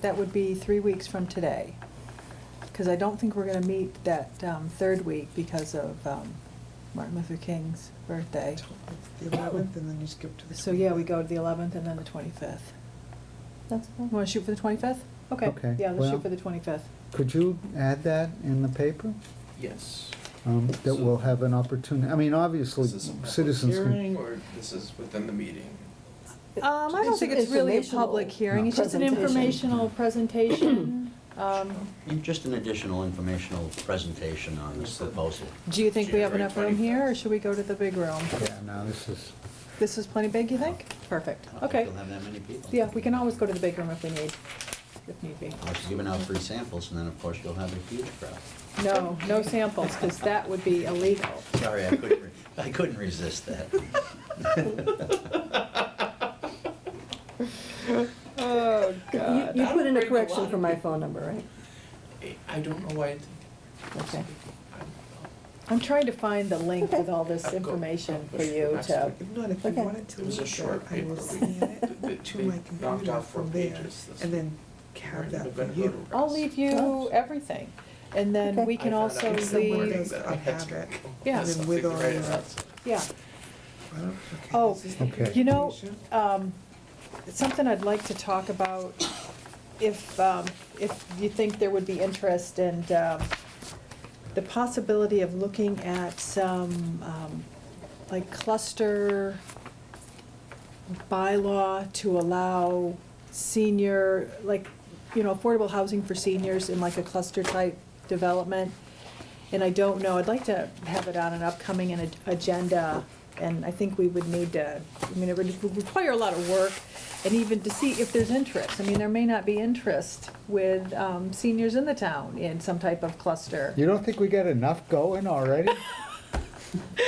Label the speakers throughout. Speaker 1: That would be three weeks from today, because I don't think we're going to meet that um, third week because of um, Martin Luther King's birthday.
Speaker 2: It's The eleventh, and then you skip to the.
Speaker 1: So, yeah, we go to the 11th and then the 25th.
Speaker 3: That's fine.
Speaker 1: Want to shoot for the 25th? Okay,
Speaker 4: Okay,
Speaker 1: yeah, let's
Speaker 4: well-
Speaker 1: shoot for the 25th.
Speaker 4: Could you add that in the paper?
Speaker 5: Yes.
Speaker 4: Um, That we'll have an opportunity, I mean, obviously,
Speaker 5: This is a public
Speaker 4: citizens can
Speaker 5: Hearing, or this is within the meeting?
Speaker 1: Um, I don't think it's really a public hearing, it's just an informational presentation. Um,
Speaker 6: Just an additional informational presentation on this proposal.
Speaker 1: Do you think we have enough room here, or
Speaker 5: January 25th.
Speaker 1: should we go to the big room?
Speaker 4: Yeah, no, this is,
Speaker 1: This is plenty big, you think? Perfect,
Speaker 6: I don't think
Speaker 1: okay.
Speaker 6: You'll have that many people.
Speaker 1: Yeah, we can always go to the big room if we need, if need be.
Speaker 6: Unless you're giving out free samples, and then, of course, you'll have a huge crowd.
Speaker 1: No, no samples, because that would be illegal.
Speaker 6: Sorry, I couldn't, re- I couldn't resist that.
Speaker 1: Oh,
Speaker 3: You,
Speaker 1: God.
Speaker 3: you
Speaker 5: I
Speaker 3: put in
Speaker 5: don't bring a
Speaker 3: a
Speaker 5: lot
Speaker 3: correction
Speaker 5: of
Speaker 3: for my
Speaker 5: people.
Speaker 3: phone number, right?
Speaker 5: I- I don't know why I did that. I
Speaker 3: Okay.
Speaker 5: don't
Speaker 1: I'm trying to find the link with all this
Speaker 5: I've got-
Speaker 1: information for
Speaker 5: I'll
Speaker 1: you
Speaker 5: push
Speaker 1: to,
Speaker 5: for
Speaker 2: If not, if you
Speaker 3: Okay.
Speaker 2: wanted to
Speaker 5: It was a
Speaker 2: leave
Speaker 5: short
Speaker 2: that, I will
Speaker 5: paper.
Speaker 2: scan
Speaker 5: They-
Speaker 2: it to
Speaker 5: they
Speaker 2: my
Speaker 5: knocked
Speaker 2: computer
Speaker 5: out four
Speaker 2: from there,
Speaker 5: pages this
Speaker 2: and then
Speaker 5: week.
Speaker 2: have
Speaker 5: know.
Speaker 2: that
Speaker 5: We're
Speaker 2: for
Speaker 5: gonna go to
Speaker 2: you.
Speaker 5: press.
Speaker 1: I'll leave you everything. And then
Speaker 3: Okay.
Speaker 1: we
Speaker 5: I
Speaker 1: can
Speaker 5: found
Speaker 1: also
Speaker 5: out
Speaker 2: if someone
Speaker 1: leave,
Speaker 2: does-
Speaker 5: that
Speaker 2: I
Speaker 5: I had
Speaker 2: have
Speaker 5: to-
Speaker 2: it.
Speaker 1: Yeah.
Speaker 2: And then
Speaker 5: something
Speaker 2: with
Speaker 5: to
Speaker 2: all
Speaker 5: write
Speaker 2: your-
Speaker 5: about it.
Speaker 1: yeah.
Speaker 2: Well, okay,
Speaker 1: Oh,
Speaker 2: this is the
Speaker 4: Okay.
Speaker 1: You know,
Speaker 2: presentation.
Speaker 1: um, something I'd like to talk about, if, um, if you think there would be interest and, um, the possibility of looking at some, um, like cluster bylaw to allow senior, like, you know, affordable housing for seniors in like a cluster type development. And I don't know, I'd like to have it on an upcoming an- agenda, and I think we would need to, I mean, it would require a lot of work, and even to see if there's interest. I mean, there may not be interest with um, seniors in the town in some type of cluster.
Speaker 4: you don't think we got enough going already?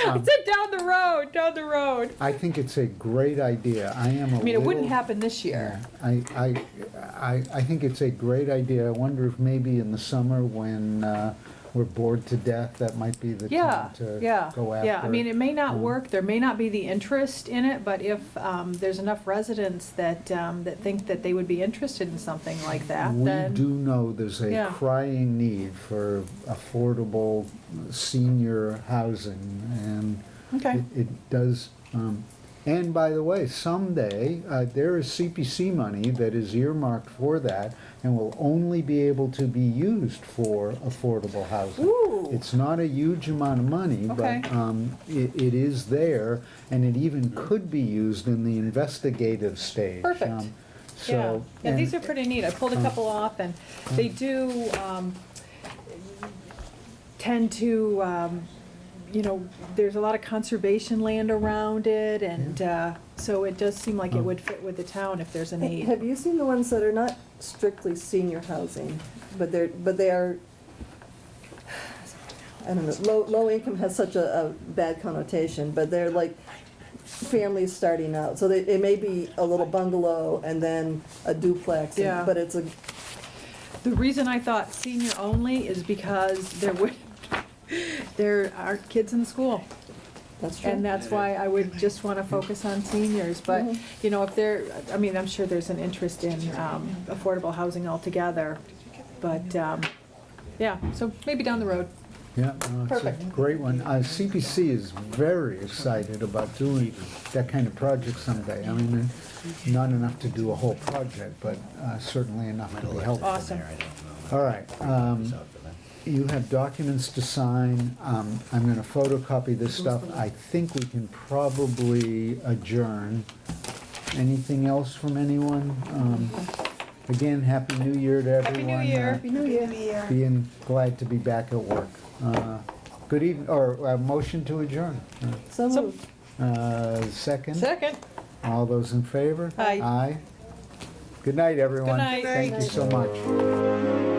Speaker 1: I
Speaker 4: Um,
Speaker 1: said down the road, down the road.
Speaker 4: I think it's a great idea, I am a
Speaker 1: I mean, it wouldn't
Speaker 4: little-
Speaker 1: happen this year.
Speaker 4: Yeah, I, I, I, I think it's a great idea, I wonder if maybe in the summer when uh, we're bored to death, that might be the
Speaker 1: Yeah,
Speaker 4: time to
Speaker 1: yeah,
Speaker 4: go after.
Speaker 1: yeah. I mean, it may not
Speaker 4: um,
Speaker 1: work, there may not be the interest in it, but if um, there's enough residents that, um, that think that they would be interested in something like that, then.
Speaker 4: We do know there's a
Speaker 1: Yeah.
Speaker 4: crying need for affordable senior housing, and
Speaker 1: Okay.
Speaker 4: it- it does, um, and by the way, someday, uh, there is CPC money that is earmarked for that and will only be able to be used for affordable housing.
Speaker 1: Ooh.
Speaker 4: It's not a huge amount of money,
Speaker 1: Okay.
Speaker 4: but um, it it is there, and it even could be used in the investigative stage.
Speaker 1: Perfect.
Speaker 4: Um,
Speaker 1: Yeah,
Speaker 4: So.
Speaker 1: yeah, these
Speaker 4: and- um,
Speaker 1: are pretty neat, I pulled a couple off, and they do um, tend to, um, you know, there's a lot of conservation land around it, and uh, so it does seem
Speaker 4: Um,
Speaker 1: like it would fit with the town if there's a need.
Speaker 3: Have you seen the ones that are not strictly senior housing, but they're, but they are, I don't know, low, low income has such a, a bad connotation, but they're like families starting out, so they, it may be a little bungalow and then a duplex, and-
Speaker 1: Yeah.
Speaker 3: but it's a,
Speaker 1: The reason I thought senior only is because there would, there aren't kids in school.
Speaker 3: that's true.
Speaker 1: And that's why I would just want to focus on seniors, but,
Speaker 3: Mhm.
Speaker 1: you know, if there, I mean, I'm sure there's an interest in um, affordable housing altogether, but, um, yeah, so maybe down the road.
Speaker 4: Yeah, no, it's a
Speaker 1: Perfect.
Speaker 4: great one. Uh, CPC is very excited about doing that kind of project someday. I mean, not enough to do a whole project, but uh, certainly enough
Speaker 6: Might
Speaker 4: to be
Speaker 6: elect
Speaker 4: helpful.
Speaker 6: them
Speaker 1: Awesome.
Speaker 6: there, I don't know.
Speaker 4: All right, um,
Speaker 6: It's up to them.
Speaker 4: you have documents to sign. Um, I'm gonna photocopy this stuff. I think we can probably adjourn. Anything else from anyone? Um, Again, Happy New Year to everyone.
Speaker 1: Happy New Year. New
Speaker 4: Uh, being glad to be back at work. Uh, Good evening, or uh, motion to adjourn.
Speaker 3: So
Speaker 1: So-
Speaker 3: moved.
Speaker 4: Uh, Second,
Speaker 1: Second,
Speaker 4: all those in favor?
Speaker 1: Aye.
Speaker 4: Aye. Good night, everyone.
Speaker 1: night.
Speaker 4: Thank you so much.